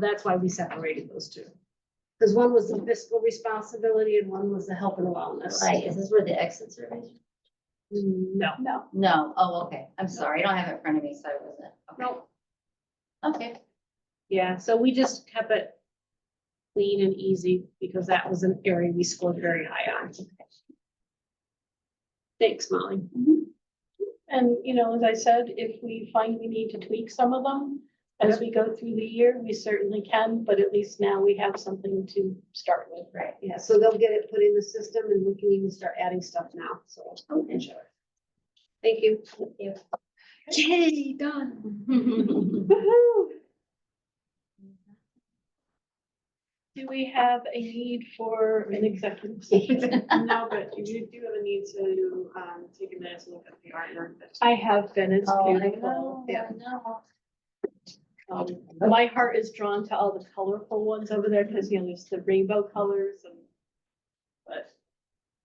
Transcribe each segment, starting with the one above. That's why we separated those two. Because one was the fiscal responsibility and one was the health and wellness. Right, is this where the exit survey? No, No, No, oh, okay, I'm sorry, I don't have it in front of me, so I wasn't. okay. no, Okay, yeah, so we just kept it clean and easy because that was an area we scored very high on. Thanks, Molly. and you know, as I said, if we find we need to tweak some of them as we go through the year, we certainly can, but at least now we have something to start with. right, Yeah, so they'll get it put in the system and we can even start adding stuff now, so. Okay. Thank you. thank you. Yay, done. Do Do we have a need for an executive session? No, but you do have a need to, um, take a minute to look at the artwork that's I have been, it's Oh, I beautiful. know, Yeah. I know. Um, My heart is drawn to all the colorful ones over there because, you know, there's the rainbow colors and, but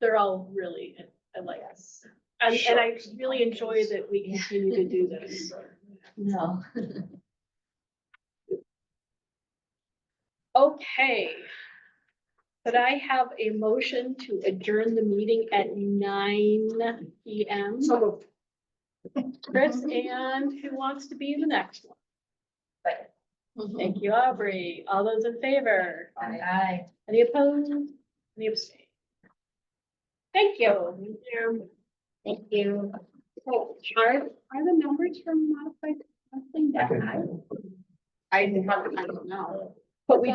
they're all really, I like this. And, and I really enjoy that we continue to do this. No, Okay. Could I have a motion to adjourn the meeting at nine P M? So moved. Chris, and who wants to be the next Second. one? Thank you, Aubrey. All those in favor? aye. Any opposed? Any abstain? Thank you. Thank you. Are, are the numbers from modified? I think that high, I, I don't know. But we